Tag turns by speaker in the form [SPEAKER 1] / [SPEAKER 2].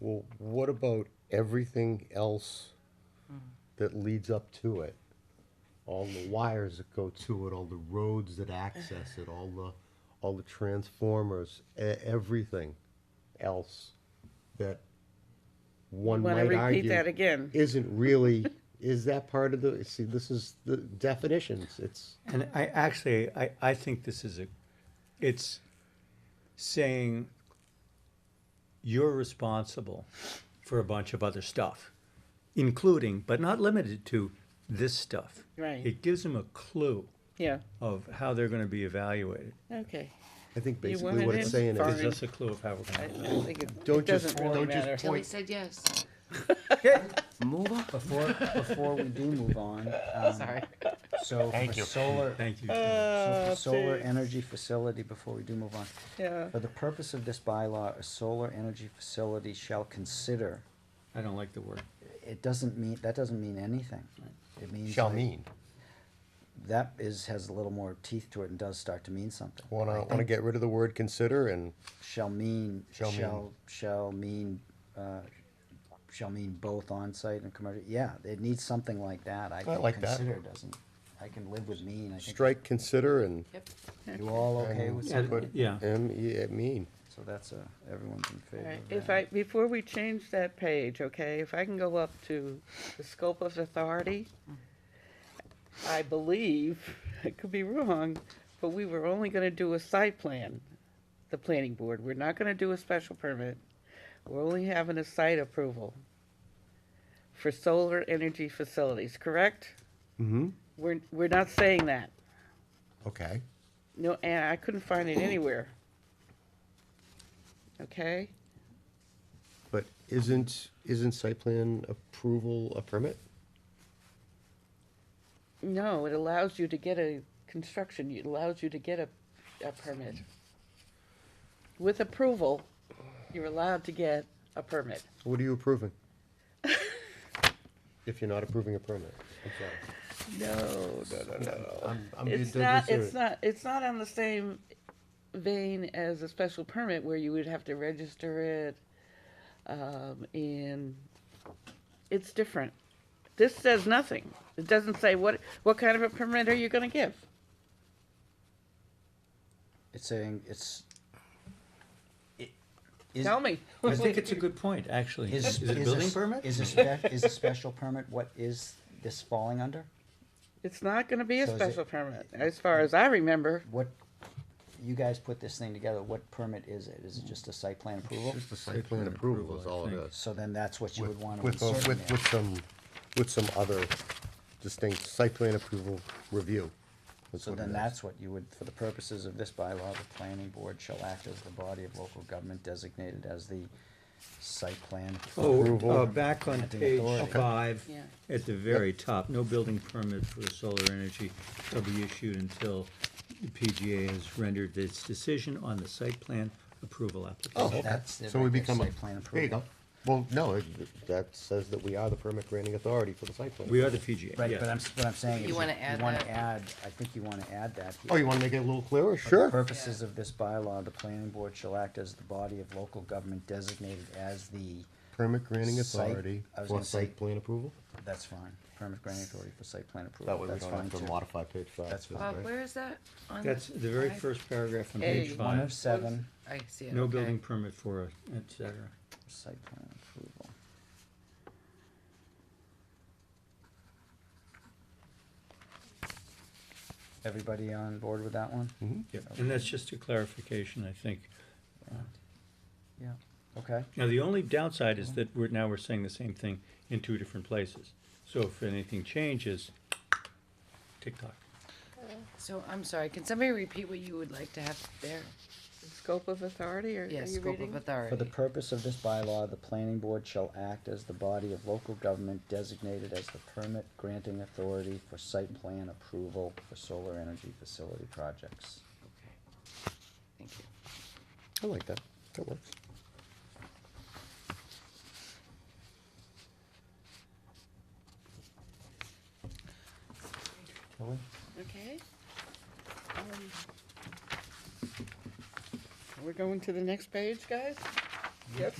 [SPEAKER 1] well, what about everything else
[SPEAKER 2] Hmm.
[SPEAKER 1] that leads up to it? All the wires that go to it, all the roads that access it, all the, all the transformers, e- everything else that one
[SPEAKER 2] Wanna
[SPEAKER 1] might
[SPEAKER 2] repeat
[SPEAKER 1] argue.
[SPEAKER 2] that again?
[SPEAKER 1] Isn't really, is that part of the, see, this is the definitions, it's,
[SPEAKER 3] And I actually, I, I think this is a, it's saying you're responsible for a bunch of other stuff, including, but not limited to, this stuff.
[SPEAKER 2] Right.
[SPEAKER 3] It gives them a clue
[SPEAKER 2] Yeah,
[SPEAKER 3] of how they're gonna be evaluated.
[SPEAKER 2] okay.
[SPEAKER 1] I think
[SPEAKER 2] You
[SPEAKER 1] basically
[SPEAKER 2] wanted
[SPEAKER 1] what it's
[SPEAKER 2] it
[SPEAKER 1] saying
[SPEAKER 2] far
[SPEAKER 1] is.
[SPEAKER 3] Gives us a clue of how we're
[SPEAKER 2] I
[SPEAKER 3] gonna.
[SPEAKER 2] don't think it,
[SPEAKER 1] Don't
[SPEAKER 2] it doesn't
[SPEAKER 1] just-
[SPEAKER 2] really
[SPEAKER 1] don't just
[SPEAKER 2] matter.
[SPEAKER 1] point-
[SPEAKER 4] Tilly said yes.
[SPEAKER 5] Move on. Before, before we do move on, um,
[SPEAKER 4] Sorry.
[SPEAKER 5] so for solar,
[SPEAKER 3] Thank you.
[SPEAKER 5] so
[SPEAKER 2] Uh,
[SPEAKER 5] for solar
[SPEAKER 2] please.
[SPEAKER 5] energy facility, before we do move on,
[SPEAKER 2] Yeah,
[SPEAKER 5] for the purpose of this bylaw, a solar energy facility shall consider,
[SPEAKER 3] I don't like the word.
[SPEAKER 5] it doesn't mean, that doesn't mean anything. It means.
[SPEAKER 1] Shall
[SPEAKER 5] like-
[SPEAKER 1] mean.
[SPEAKER 5] That is, has a little more teeth to it and does start to mean something.
[SPEAKER 1] Want to want to get rid of the word consider and
[SPEAKER 5] Shall mean,
[SPEAKER 1] Shall mean.
[SPEAKER 5] shall, shall mean, uh, shall mean both on-site and commercial, yeah, it needs something like that, I think
[SPEAKER 1] like that.
[SPEAKER 5] consider doesn't, I can live with mean, I think.
[SPEAKER 1] strike consider and
[SPEAKER 4] Yep.
[SPEAKER 5] You all okay with
[SPEAKER 3] Yeah,
[SPEAKER 5] that?
[SPEAKER 3] yeah.
[SPEAKER 1] M E it mean.
[SPEAKER 5] So that's a, everyone's in
[SPEAKER 2] all
[SPEAKER 5] favor
[SPEAKER 2] right.
[SPEAKER 5] of that.
[SPEAKER 2] If I, before we change that page, okay, if I can go up to the scope of authority, I believe, I could be wrong, but we were only gonna do a site plan, the planning board. We're not gonna do a special permit. We're only having a site approval for solar energy facilities, correct?
[SPEAKER 1] Mm-hmm.
[SPEAKER 2] We're, we're not saying that.
[SPEAKER 1] Okay.
[SPEAKER 2] No, and I couldn't find it anywhere. Okay,
[SPEAKER 1] But isn't isn't site plan approval a permit?
[SPEAKER 2] no, it allows you to get a construction, it allows you to get a, a permit. With approval, you're allowed to get a permit.
[SPEAKER 1] What are you approving? if you're not approving a permit, I'm sorry.
[SPEAKER 2] No,
[SPEAKER 1] No, no, no. I'm, I'm being
[SPEAKER 2] It's
[SPEAKER 1] deadly
[SPEAKER 2] not,
[SPEAKER 1] serious.
[SPEAKER 2] it's not, it's not on the same vein as a special permit where you would have to register it, um, and it's different. This says nothing. It doesn't say what, what kind of a permit are you gonna give?
[SPEAKER 5] It's saying, it's. it- is-
[SPEAKER 2] Tell me.
[SPEAKER 3] I think it's a good point, actually.
[SPEAKER 5] Is,
[SPEAKER 3] Is it a
[SPEAKER 5] is
[SPEAKER 3] building
[SPEAKER 5] s-
[SPEAKER 3] permit?
[SPEAKER 5] Is a spe- is a special permit, what is this falling under?
[SPEAKER 2] It's not gonna be a
[SPEAKER 5] So is it-
[SPEAKER 2] special permit, as far as I remember.
[SPEAKER 5] What, you guys put this thing together, what permit is it? Is it just a site plan approval?
[SPEAKER 1] Just the site plan approval is all it is.
[SPEAKER 5] So then that's what you would
[SPEAKER 1] With,
[SPEAKER 5] wanna
[SPEAKER 1] with,
[SPEAKER 5] insert in
[SPEAKER 1] with,
[SPEAKER 5] there.
[SPEAKER 1] with some with some other distinct site plan approval review. is
[SPEAKER 5] So
[SPEAKER 1] what it
[SPEAKER 5] then
[SPEAKER 1] is.
[SPEAKER 5] that's what you would, for the purposes of this bylaw, the planning board shall act as the body of local government designated as the site plan.
[SPEAKER 3] Oh,
[SPEAKER 1] Approval.
[SPEAKER 3] uh, back on page five,
[SPEAKER 2] Yeah.
[SPEAKER 3] at the very top, no building permit for solar energy shall be issued until the PGA has rendered its decision on the site plan approval
[SPEAKER 1] Oh,
[SPEAKER 3] application.
[SPEAKER 1] okay.
[SPEAKER 5] That's the
[SPEAKER 1] So we
[SPEAKER 5] right there,
[SPEAKER 1] become a,
[SPEAKER 5] site plan
[SPEAKER 1] there you go.
[SPEAKER 5] approval.
[SPEAKER 1] Well, no, it- that says that we are the permit granting authority for the site plan.
[SPEAKER 3] We are the PGA,
[SPEAKER 5] Right,
[SPEAKER 3] yeah.
[SPEAKER 5] but I'm, s- what I'm saying is.
[SPEAKER 4] You wanna add
[SPEAKER 5] You wanna
[SPEAKER 4] that?
[SPEAKER 5] add, I think you wanna add that here.
[SPEAKER 1] Oh, you wanna make it a little clearer?
[SPEAKER 5] For the
[SPEAKER 1] Sure.
[SPEAKER 5] purposes of this bylaw, the planning board shall act as the body of local government designated as the,
[SPEAKER 1] Permit granting
[SPEAKER 5] Site-
[SPEAKER 1] authority
[SPEAKER 5] I was
[SPEAKER 1] for
[SPEAKER 5] gonna say-
[SPEAKER 1] site plan approval?
[SPEAKER 5] that's fine, permit granting authority for site plan approval.
[SPEAKER 1] That way we
[SPEAKER 5] That's
[SPEAKER 1] don't
[SPEAKER 5] fine,
[SPEAKER 1] have to
[SPEAKER 5] too.
[SPEAKER 1] modify page five.
[SPEAKER 5] That's
[SPEAKER 1] too,
[SPEAKER 4] Bob,
[SPEAKER 1] right?
[SPEAKER 4] where is that? on
[SPEAKER 3] That's the very
[SPEAKER 4] five?
[SPEAKER 3] first paragraph on
[SPEAKER 2] Hey.
[SPEAKER 3] page
[SPEAKER 5] One of
[SPEAKER 3] five,
[SPEAKER 5] seven,
[SPEAKER 4] I see it.
[SPEAKER 3] no
[SPEAKER 4] okay.
[SPEAKER 3] building permit for, a- et cetera.
[SPEAKER 5] site plan approval. Everybody on board with that one?
[SPEAKER 3] Yep, And that's just a clarification, I think.
[SPEAKER 5] Yeah, okay.
[SPEAKER 3] Now, the only downside is that we're, now we're saying the same thing in two different places. So if anything changes, tick-tock.
[SPEAKER 4] So I'm sorry. Can somebody repeat what you would like to have there?
[SPEAKER 2] Scope of authority, or are
[SPEAKER 4] Yes,
[SPEAKER 2] you
[SPEAKER 4] scope of
[SPEAKER 2] reading?
[SPEAKER 5] For the
[SPEAKER 4] authority.
[SPEAKER 5] purpose of this bylaw, the planning board shall act as the body of local government designated as the permit granting authority for site plan approval for solar energy facility projects.
[SPEAKER 4] Thank you.
[SPEAKER 1] I like that. That works.
[SPEAKER 5] Tilly?
[SPEAKER 2] Okay. Um, We're going to the next page, guys? Yep.